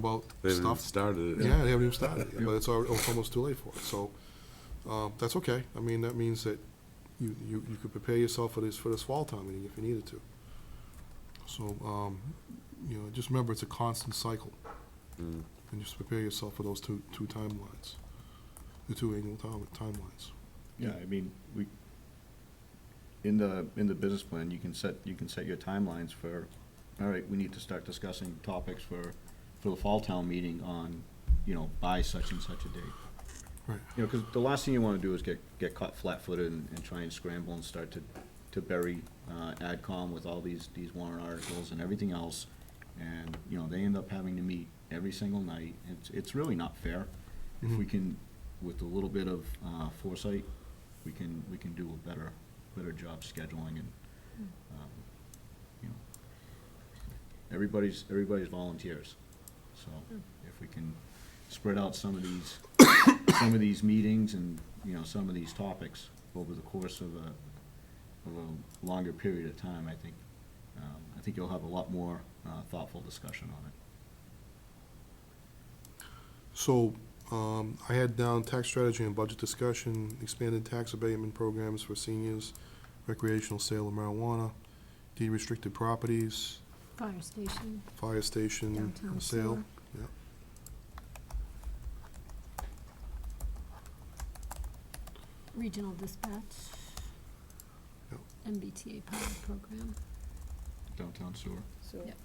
about They haven't even stuff. started it. Yeah, they haven't even started, yet, but it's, al- it's almost too late for it, so, uh, that's okay. I mean, that means that you, you, you could prepare yourself for this, for this fall time meeting if you needed to. So, um, you know, just remember, it's a constant cycle, Mm. and just prepare yourself for those two, two timelines, the two annual time, timelines. Yeah, I mean, we, in the, in the business plan, you can set, you can set your timelines for, all right, we need to start discussing topics for, for the fall town meeting on, you know, by such and such a date. Right. You know, because the last thing you want to do is get, get caught flat-footed and, and try and scramble and start to, to bury, uh, AdCom with all these, these warrant articles and everything else. And, you know, they end up having to meet every single night. It's, it's really not fair. If we Mhm. can, with a little bit of, uh, foresight, we can, we can do a better, better job scheduling and, um, you know. Everybody's, everybody's volunteers, so if we can spread out some of these, some of these meetings and, you know, some of these topics over the course of a, of a longer period of time, I think, um, I think you'll have a lot more, uh, thoughtful discussion on it. So, um, I had down tax strategy and budget discussion, expanded tax abatement programs for seniors, recreational sale of marijuana, de-restricted properties, Fire station, fire station downtown Mm, sale. sewer. Regional dispatch. Yep. MBTA pilot program. Downtown sewer. So, Yep.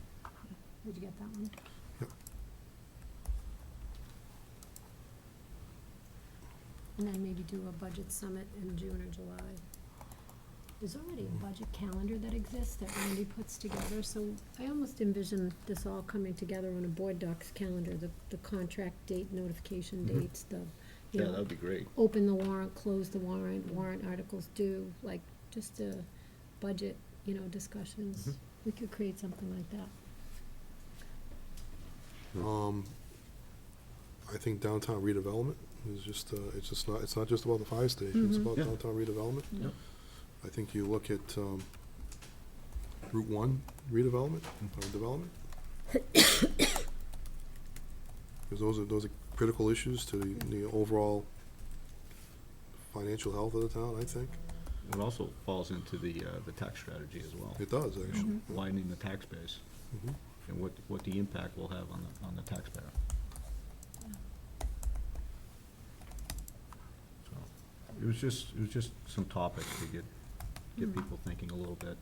Did you get that one? Yep. And then maybe do a budget summit in June or July. There's already a budget calendar that exists that Randy puts together, so I almost envision this all coming together on a board docs calendar, the, the contract date, notification Mhm. dates, the, you Mm-hmm. Yeah, know, that would be great. open the warrant, close the warrant, warrant articles due, like, just a budget, you know, Mm-hmm. discussions. We could create something like that. Um, I think downtown redevelopment is just, uh, it's just not, it's not just about the fire station, it's Mhm. about Mm-hmm. Yeah. downtown redevelopment. Yep. I think you look at, um, Route One redevelopment, or development. Because those are, those are critical issues to the, the overall financial health of the town, I think. It also falls into the, uh, the tax strategy as well. It does, You know, actually. Widening the tax base Mhm. and what, what the impact will have on the, on the taxpayer. So, It was just, it was just some topics to get, get Mhm. people thinking a little bit.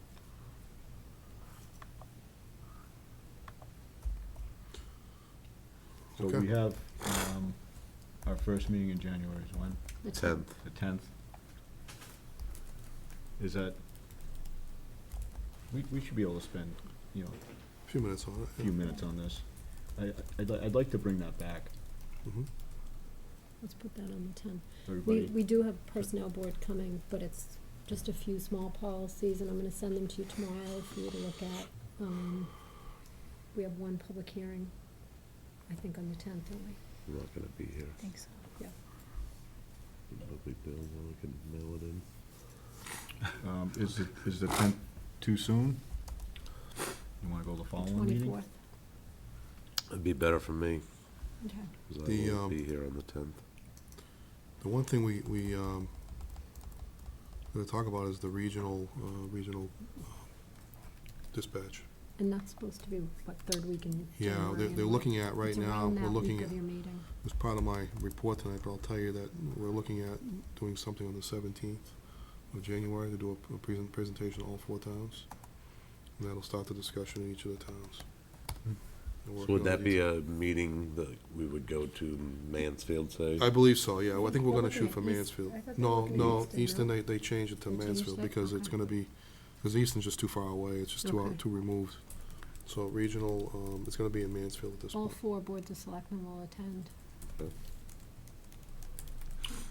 So Okay. we have, um, our first meeting in January is when? The Tenth. The tenth. Is that, we, we should be able to spend, you know, Few minutes on a it. few minutes on this. I, I'd, li- I'd like to bring that back, Mhm. Let's put that on the ten. We, everybody. we do have personnel board coming, but it's just a few small policies, and I'm gonna send them to you tomorrow for you to look at. Um, we have one public hearing, I think on the tenth, don't we? I'm not gonna be here. I think so. No big deal. I can mail it in. Um, is it, is the tenth too soon? You wanna go the following meeting? Twenty-fourth, It'd be better for me, okay. because The, I um, won't be here on the tenth. The one thing we, we, um, gonna talk about is the regional, uh, regional uh, dispatch. And that's supposed to be, what, third week in January? Yeah, they're, they're anyway. looking at right It's now, around we're that week looking at, of your meeting. as part of my report tonight, but I'll tell you that we're looking at doing something on the seventeenth of January to do a, a present, presentation to all four towns. And that'll start the discussion in each of the towns. We're Hmm. So working on would that the be detail. a meeting that we would go to Mansfield, say? I believe so, yeah, I think we're gonna They're shoot for looking at East- Mansfield. I thought they were No, looking at no, Easton, no? Easton, they, they changed it to They changed Mansfield that? because it's Okay. gonna be, because Easton's just too far away, it's just too Okay. out, too removed. So regional, um, it's gonna be in Mansfield at this All point. four boards of selectmen will attend.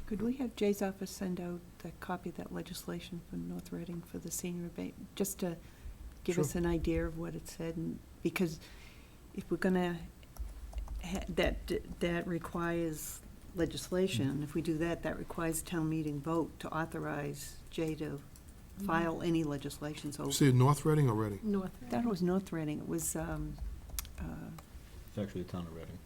Could we have Jay's office send out the copy of that legislation from North Reading for the senior abate, just to give Sure. us an idea of what it said, and, because if we're gonna, ha- that, d- that requires legislation, if we do that, that requires town meeting vote to authorize Jay to file any legislation, so. See, North Reading or Reading? North. That was North Reading, it was, um, uh, It's actually the town of Reading.